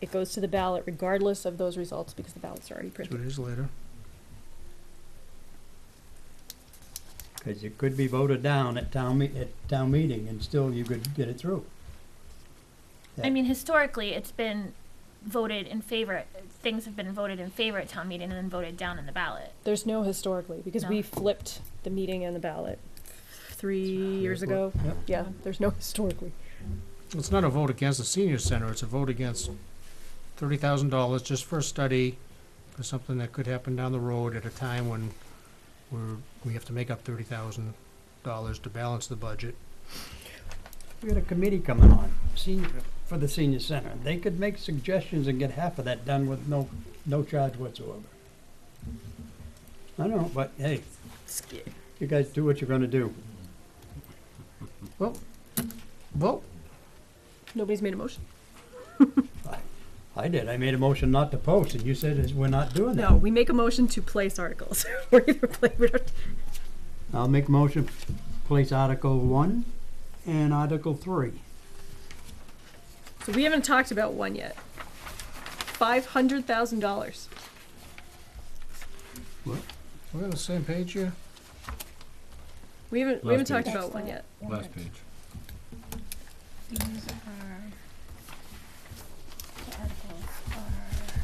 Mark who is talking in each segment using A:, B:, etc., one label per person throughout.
A: It goes to the ballot regardless of those results because the ballots are already
B: two
A: printed.
B: days later.
C: Because it could be voted down at town, me- at town meeting, and still you could get it through.
D: I mean, historically, it's been voted in favor, things have been voted in favor at town meeting and then voted down in the ballot.
A: There's no historically because
D: No.
A: we flipped the meeting and the ballot three years ago.
C: Yep.
A: Yeah, there's no historically.
B: It's not a vote against the senior center, it's a vote against thirty thousand dollars just for a study, for something that could happen down the road at a time when we're, we have to make up thirty thousand dollars to balance the budget.
C: We got a committee coming on, senior, for the senior center. They could make suggestions and get half of that done with no, no charge whatsoever. I don't know, but hey, you guys do what you're gonna do.
B: Vote,
A: Nobody's made a motion.
C: I did, I made a motion not to post, and you said is- we're not doing that.
A: No, we make a motion to place articles. We're either play, we don't,
C: I'll make a motion, place Article one and Article three.
A: so we haven't talked about one yet. Five hundred thousand dollars.
B: we're on the same page here?
A: We haven't we haven't
E: Last
A: talked
E: page.
A: about one yet.
E: Last page.
F: These are, the articles are.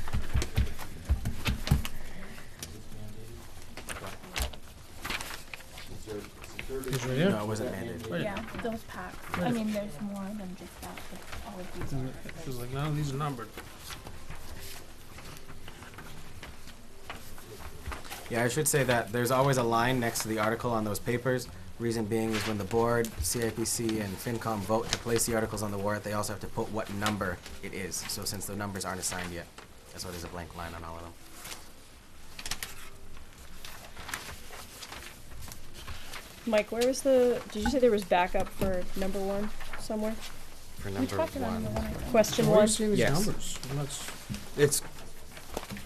B: Is it here?
E: No, it wasn't mandated.
B: Wait.
F: Yeah, those packs. I mean, there's more than just that, but all of these are.
B: It was like, none of these are numbered.
E: Yeah, I should say that there's always a line next to the article on those papers. Reason being is when the board, CIPC, and FinCom vote to place the articles on the warrant, they also have to put what number it is. So since the numbers aren't assigned yet, that's why there's a blank line on all of them.
A: Mike, where was the? Did you say there was backup for number one somewhere?
E: For
F: We
E: number
F: talked about it in the
E: one.
F: one. I thought.
A: Question
B: So where are you
A: one.
B: seeing these
E: Yes.
B: numbers? I'm not s-
E: It's.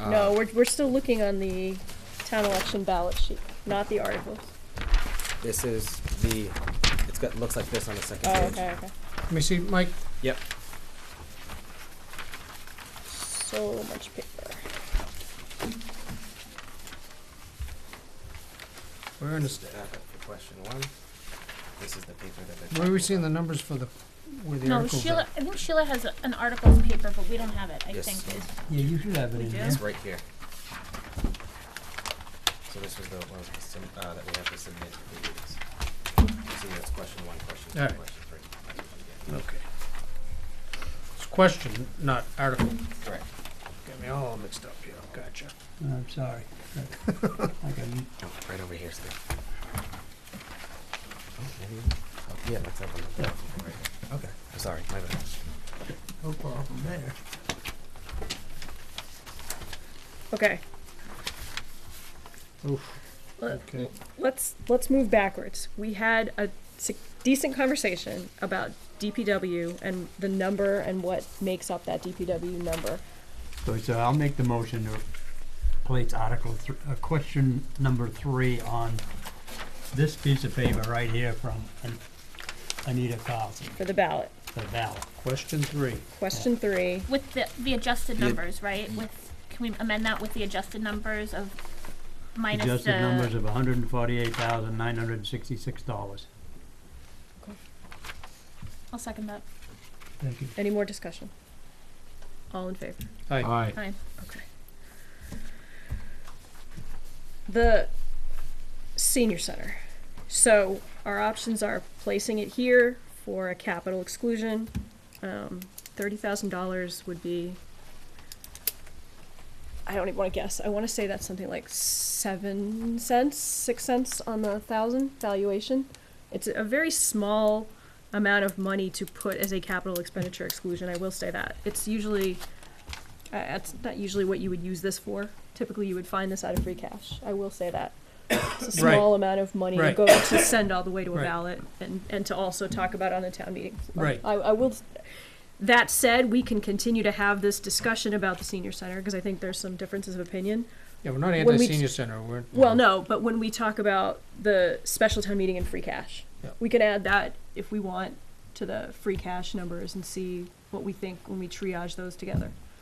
E: uh,
A: No, we're we're still looking on the town election ballot sheet, not the articles.
E: This is the, it's got, looks like this on the second
A: Oh,
E: page.
A: okay, okay.
B: Let me see, Mike,
A: So much paper.
B: where in
E: This is
B: this,
E: the backup for question one. This is the paper that they're.
B: where are we
E: talking
B: seeing the
E: about.
B: numbers for the, where the
D: No,
B: articles
D: Sheila,
B: are?
D: I think Sheila has a- an articles paper, but we don't have it, I
E: Yes,
D: think.
E: so-
D: is-
C: Yeah, you should have it
D: We
C: in
D: do?
C: there.
E: It's right here. So this was the one that was sub- uh, that we have to submit to the meetings. You see, that's question one, question two,
B: Alright.
E: question three. question four,
B: Okay. It's question, not article.
E: yeah. Correct.
B: Got me all mixed up here, gotcha.
C: I'm sorry. I can-
E: Oh, right over here, Steve. Oh, maybe, oh, yeah, that's up on the top. Right here. Okay, I'm sorry, my bad.
C: No problem there.
A: Okay.
B: Oof.
A: Let-
B: Okay.
A: Let's let's move backwards. We had a si- decent conversation about DPW and the number and what makes up that DPW number.
C: So, so I'll make the motion to place Article, thr- uh, question number three on this piece of paper right here from An- Anita Carlson,
A: for the ballot.
C: the ballot.
B: Question three.
A: Question three.
D: With the, the adjusted
E: The-
D: numbers, right? With, can we amend that with the adjusted numbers of minus
C: Adjusted numbers
D: the,
C: of hundred and forty-eight thousand, nine hundred and sixty-six dollars.
D: I'll second that.
C: Thank you.
A: Any more discussion? All in favor?
B: Aye.
D: Fine.
A: Okay. The senior center. So our options are placing it here for a capital exclusion. Um, thirty thousand dollars would be. I don't even want to guess. I want to say that's something like seven cents, six cents on the thousand valuation. It's a very small amount of money to put as a capital expenditure exclusion. I will say that it's usually. Uh, that's not usually what you would use this for. Typically, you would find this out of free cash. I will say that. It's a
B: Right.
A: small amount of money to
B: Right.
A: go to send all the way to a
B: Right.
A: ballot and, and to also talk about on the town meeting. floor.
B: Right.
A: I, I will, that said, we can continue to have this discussion about the senior center because I think there's some differences of opinion.
B: Yeah, we're not
A: When we-
B: anti-senior center, we're.
A: Well, no, but when we talk about the special town meeting and free cash,
B: Yeah.
A: we can add that if we want to the free cash numbers and see what we think when we triage those together.